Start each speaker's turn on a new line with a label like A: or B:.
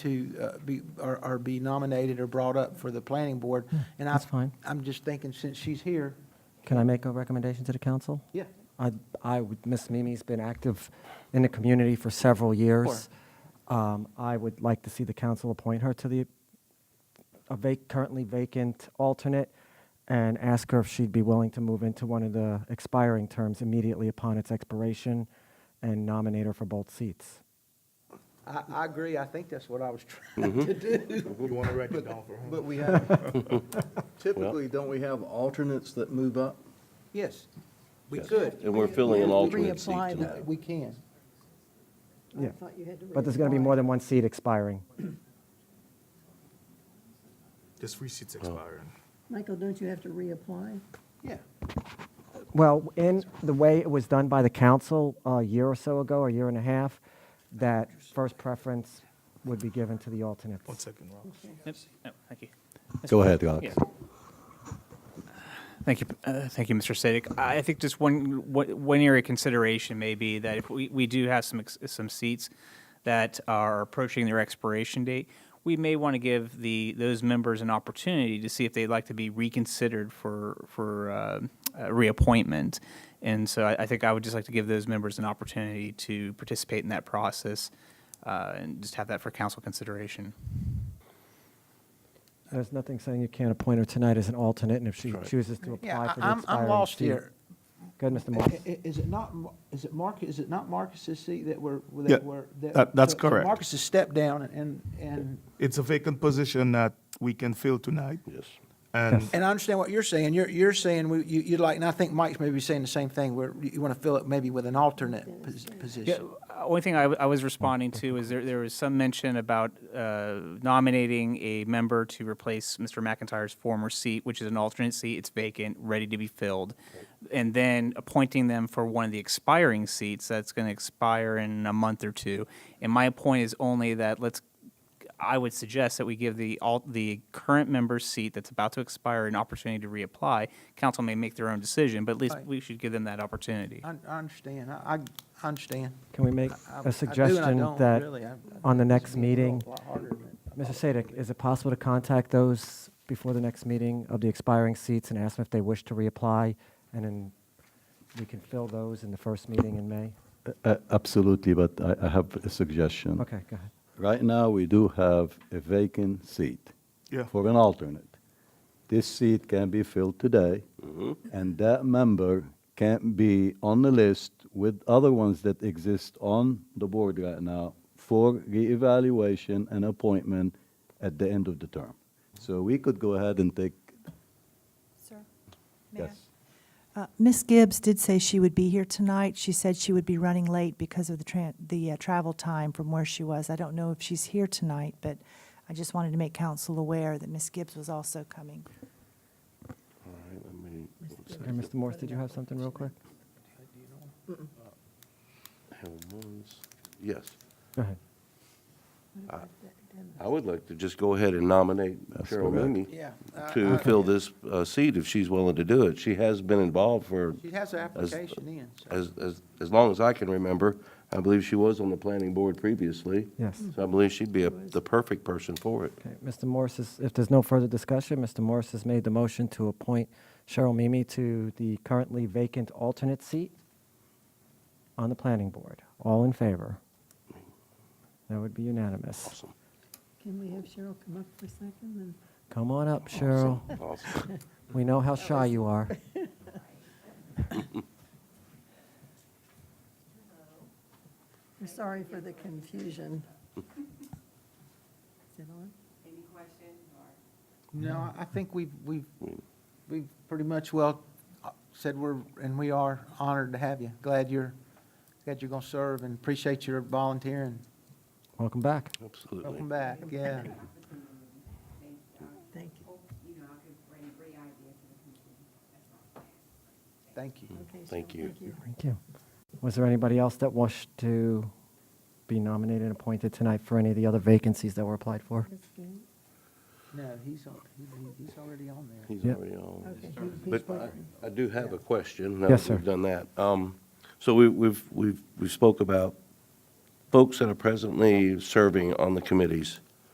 A: to uh, be, or or be nominated or brought up for the planning board. And I-
B: Hmm, that's fine.
A: I'm just thinking, since she's here,
B: Can I make a recommendation to the council?
A: yeah,
B: I, I, would- Miss Mimi's been active in the community for several years. Um, I would like to see the council appoint her to the, a vac, currently vacant alternate, and ask her if she'd be willing to move into one of the expiring terms immediately upon its expiration, and nominate her for both seats.
A: I, I agree. I think that's what I was
C: Mm-hmm.
A: trying to do.
C: You want to write it down for
D: But we have, typically, don't we have alternates that move up?
A: Yes, we
E: Yes.
A: could.
E: And we're filling an
A: We
E: alternate seat
A: reapply that.
E: tonight.
A: We can.
B: Yeah.
F: I thought you had to.
B: But there's going to be
F: reapply.
B: more than one seat expiring.
C: This free
G: Oh.
C: seat's expiring.
F: Michael, don't you have to reapply?
A: Yeah.
B: Well, in the way it was done by the council uh, a year or so ago, a year and a half, that first preference would be given to the
C: One
B: alternates.
C: second, Rob.
F: Okay.
H: Yep. No, Thank you.
E: Go ahead, Alex.
H: Yeah. Thank you, uh, thank you, Mr. Sadik. I I think just one, one one area consideration may be that if we, we do have some, ex- some seats that are approaching their expiration date, we may want to give the, those members an opportunity to see if they'd like to be reconsidered for, for uh, uh, reappointment. And so I, I think I would just like to give those members an opportunity to participate in that process uh, and just have that for council consideration.
B: There's nothing saying you can't appoint her tonight as an alternate, and if she
E: Right.
B: chooses to
A: Yeah,
B: apply
A: I-
B: for the
A: I'm, I'm
B: expiring
A: lost
B: seat.
A: here.
B: Go ahead, Mr.
A: I-
B: Morris.
A: i- Is it not, Mar- is it Marcus, is it not Marcus's seat that we're,
C: Yeah,
A: that we're? that-
C: that- that's
A: so- so
C: correct.
A: Marcus has stepped down and, and,
C: It's a vacant position that we can fill tonight,
E: Yes.
C: and
A: and I understand what you're saying. You're, you're saying, we- you, you'd like, and I think Mike's maybe saying the same thing, where you want to fill it maybe with an alternate pos- position.
H: Yeah, uh, only thing I, w- I was responding to is there, there was some mention about uh, nominating a member to replace Mr. McIntyre's former seat, which is an alternate seat. It's vacant, ready to be filled. And then appointing them for one of the expiring seats that's going to expire in a month or two. And my point is only that let's I would suggest that we give the all the current member's seat that's about to expire an opportunity to reapply. Council may make their own decision, but at least
A: Right.
H: we should give them that opportunity.
A: I, I understand. I, I- I understand.
B: Can we make
A: I- I do and I
B: a suggestion
A: don't,
B: that
A: really. I- I-
B: on the
A: this
B: next
A: made it a
B: meeting,
A: lot harder than I
B: Mr.
A: thought it would
B: Sadik,
A: be.
B: is it possible to contact those before the next meeting of the expiring seats and ask them if they wish to reapply? And then we can fill those in the first meeting in May?
G: Uh, Absolutely, but I, I have a suggestion.
B: Okay, go ahead.
G: Right now, we do have a vacant seat
C: Yeah.
G: for an alternate. This seat can be filled today, and that member can be on the list with other ones that exist on the board right now for reevaluation and appointment at the end of the term. So we could go ahead and take,
I: Sir? may I?
G: yes.
I: Uh, Ms. Gibbs did say she would be here tonight. She said she would be running late because of the tran, the uh, travel time from where she was. I don't know if she's here tonight, but I just wanted to make council aware that Ms. Gibbs was also coming.
E: All right, let me,
B: And Mr. Morris, did you have something real quick?
E: hang on one s- yes.
B: Go ahead.
E: I would like to just go ahead and nominate
G: That's
E: Cheryl
G: correct.
E: Mooney
A: Yeah, I-
E: to
A: I-
E: fill this uh, seat if she's willing to do it. She has been involved for,
A: She has an application in, so.
E: as, as, as long as I can remember. I believe she was on the planning board previously.
B: Yes.
E: So I believe she'd be a- the perfect person for it.
B: Okay, Mr. Morris is, if there's no further discussion, Mr. Morris has made the motion to appoint Cheryl Mimi to the currently vacant alternate seat on the planning board. All in favor? That would be unanimous.
F: Can we have Cheryl come up for a second and?
B: Come on up, Cheryl.
E: Awesome.
B: We know how shy you are.
F: We're sorry for the confusion. Is it on?
A: No, I I think we've, we've,
E: Hmm.
A: we've pretty much well uh, said we're, and we are honored to have you. Glad you're, glad you're going to serve and appreciate your volunteering.
B: Welcome back.
E: Absolutely.
A: Welcome back, yeah.
F: Thank
A: Thank
F: you.
A: you.
F: Okay, Cheryl,
E: Thank you.
B: Thank you. Was there anybody else that wished to be nominated and appointed tonight for any of the other vacancies that were applied for?
F: That's good.
A: No, he's, al- he- he- he's already on there.
E: He's
B: Yep.
E: already on.
F: Okay, he- he's
E: But uh,
F: waiting.
E: I- I do have a question. now
B: Yes,
E: that we've
B: sir.
E: Done that. Um, So we- we've, we've, we spoke about folks that are presently serving on the committees.